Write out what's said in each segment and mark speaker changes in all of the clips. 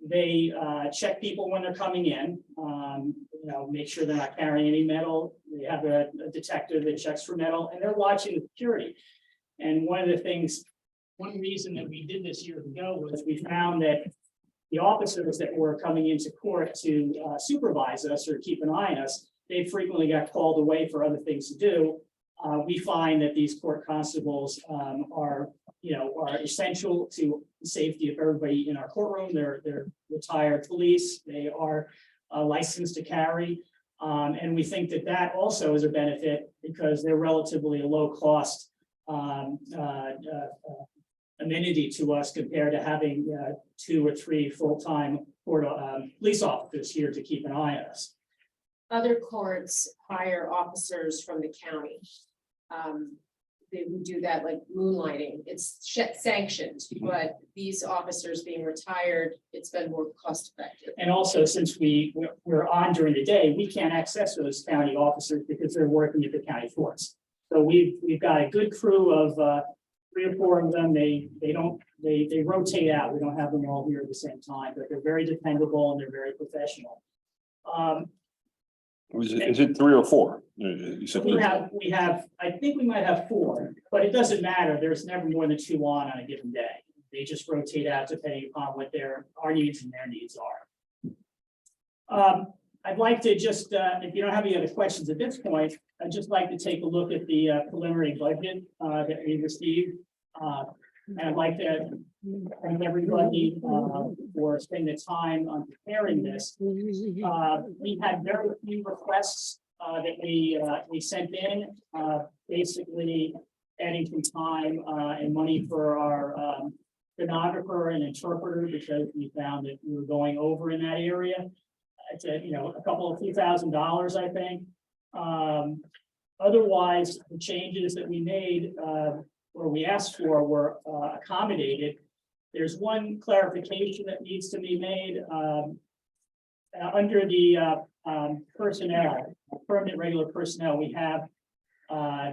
Speaker 1: They uh, check people when they're coming in, um, you know, make sure they're not carrying any metal. They have a a detector that checks for metal and they're watching the security. And one of the things, one reason that we did this years ago was we found that the officers that were coming into court to uh, supervise us or keep an eye on us, they frequently got called away for other things to do. Uh, we find that these court constables um, are, you know, are essential to the safety of everybody in our courtroom. They're, they're retired police. They are uh, licensed to carry. Um, and we think that that also is a benefit because they're relatively a low cost um, uh, uh, uh, amenity to us compared to having uh, two or three full-time court, um, police officers here to keep an eye on us.
Speaker 2: Other courts hire officers from the county. Um, they would do that like moonlighting, it's sh- sanctioned, but these officers being retired, it's been more cost effective.
Speaker 1: And also, since we, we're- we're on during the day, we can't access those county officers because they're working at the county force. So we've, we've got a good crew of, uh, three or four of them. They, they don't, they, they rotate out. We don't have them all here at the same time, but they're very dependable and they're very professional. Um,
Speaker 3: Was it, is it three or four? You- You said,
Speaker 1: we
Speaker 3: three.
Speaker 1: have, we have, I think we might have four, but it doesn't matter. There's never more than two on on a given day. They just rotate out depending upon what their, our needs and their needs are. Um, I'd like to just, uh, if you don't have any other questions at this point, I'd just like to take a look at the uh, preliminary budget, uh, that we received. Uh, and I'd like to thank everybody, uh, for spending the time on preparing this.
Speaker 4: Mm-hmm.
Speaker 5: Mm-hmm.
Speaker 1: Uh, we had very few requests, uh, that we, uh, we sent in, uh, basically adding some time, uh, and money for our, um, stenographer and interpreter because we found that we were going over in that area. It's a, you know, a couple of few thousand dollars, I think. Um, otherwise, the changes that we made, uh, or we asked for were, uh, accommodated. There's one clarification that needs to be made, um, uh, under the uh, um, personnel, permanent regular personnel, we have uh,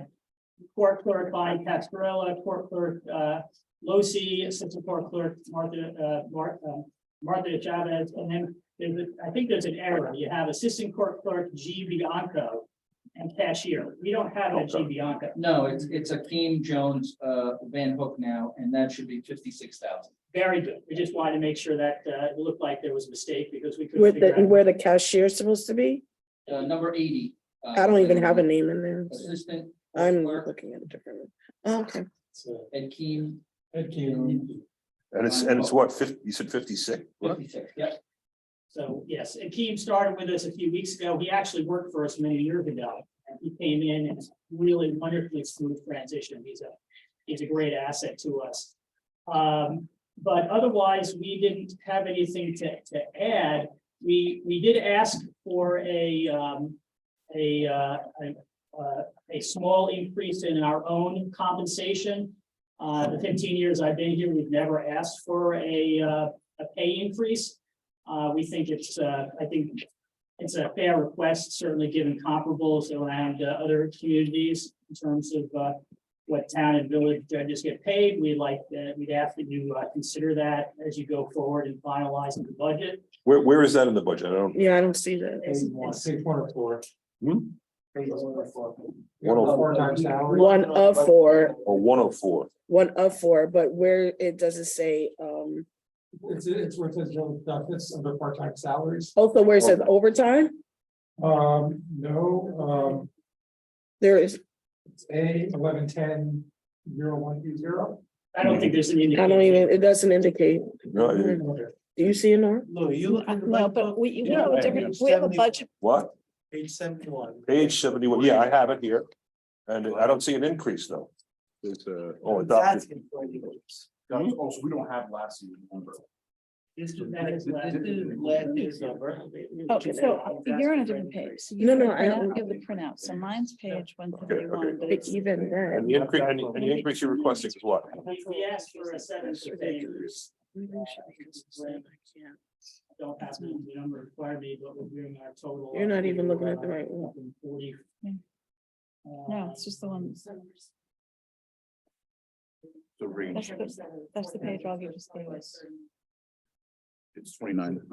Speaker 1: court clerk Bonnie Pascarella, court clerk uh, Losi, assistant court clerk Martha, uh, Mar- um, Martha Chavez, and then there's, a- I think there's an error. You have assistant court clerk G Bianco and cashier. We don't have a G
Speaker 3: Okay.
Speaker 1: Bianco.
Speaker 6: No, it's, it's Akeem Jones, uh, Van Hook now, and that should be fifty-six thousand.
Speaker 1: Very good. We just wanted to make sure that uh, it looked like there was a mistake because we couldn't
Speaker 4: Where the,
Speaker 1: figure out.
Speaker 4: where the cashier's supposed to be?
Speaker 6: Uh, number eighty. uh,
Speaker 4: I don't even have
Speaker 5: Mm-hmm.
Speaker 4: a name in there.
Speaker 6: Assistant
Speaker 4: I'm
Speaker 6: Clerk.
Speaker 4: looking at a different. one. Oh, Okay,
Speaker 6: Akeem
Speaker 7: Fifteen.
Speaker 3: and it's, and it's what, fifty, you said fifty-six?
Speaker 6: fifty-six, yep.
Speaker 1: So, yes, and Keem started with us a few weeks ago. He actually worked for us many years ago. And he came in and it's really wonderfully smooth transition. He's a, he's a great asset to us. Um, but otherwise, we didn't have anything to, to add. We, we did ask for a, um, a, uh, a, uh, a small increase in our own compensation. Uh, the fifteen years I've been here, we've never asked for a, uh, a pay increase. Uh, we think it's, uh, I think it's a fair request, certainly given comparables around uh, other communities in terms of, uh, what town and village judges get paid. We'd like, uh, we'd ask that you, uh, consider that as you go forward and finalize the budget.
Speaker 3: Where, where is that in the budget? I don't,
Speaker 4: yeah, I don't see that.
Speaker 7: Six one or four.
Speaker 3: Hmm?
Speaker 7: Page one of four.
Speaker 3: One of-
Speaker 6: Oh,
Speaker 7: Four times salary.
Speaker 4: One of four,
Speaker 3: or one oh four,
Speaker 4: one of four, but where it doesn't say, um,
Speaker 7: It's, it's where it says general benefits under part-time salaries.
Speaker 4: also where it says overtime,
Speaker 7: Um, no, um,
Speaker 4: there is,
Speaker 7: it's A eleven ten zero one two zero.
Speaker 1: I don't think there's an
Speaker 4: I don't
Speaker 1: indication.
Speaker 4: even, it doesn't indicate.
Speaker 3: no, it-
Speaker 4: Do you see it, Nora?
Speaker 8: Lou, you look at the
Speaker 5: No, but we, we
Speaker 8: Yeah,
Speaker 5: have a
Speaker 8: right,
Speaker 5: different,
Speaker 8: yeah.
Speaker 5: we have a
Speaker 8: 71.
Speaker 5: budget,
Speaker 3: what,
Speaker 8: page seventy-one.
Speaker 3: page seventy-one, yeah, I have it here, and I don't see an increase though. It's, uh, oh, adopted,
Speaker 8: That's employee groups.
Speaker 9: Also, we don't have last year's number.
Speaker 8: This is,
Speaker 1: That is last-
Speaker 8: this is last year's number.
Speaker 5: oh, so you're on a different page. so you
Speaker 4: No, no,
Speaker 5: don't-
Speaker 4: I
Speaker 5: I
Speaker 4: don't-
Speaker 5: don't give the printout, so mine's page one
Speaker 3: okay.
Speaker 5: fifty-one, but
Speaker 4: But
Speaker 5: it's.
Speaker 4: even
Speaker 3: and
Speaker 4: then.
Speaker 3: the increase, and the- and the increase you're requesting is what?
Speaker 1: We we asked for a seven to eight. Don't have the number required me, but we're doing our total.
Speaker 4: You're not even looking at the right one.
Speaker 1: Forty. Uh,
Speaker 5: Yeah. No, it's just the one,
Speaker 3: The range.
Speaker 5: that's the, that's the page I'll give you.
Speaker 9: It's twenty-nine.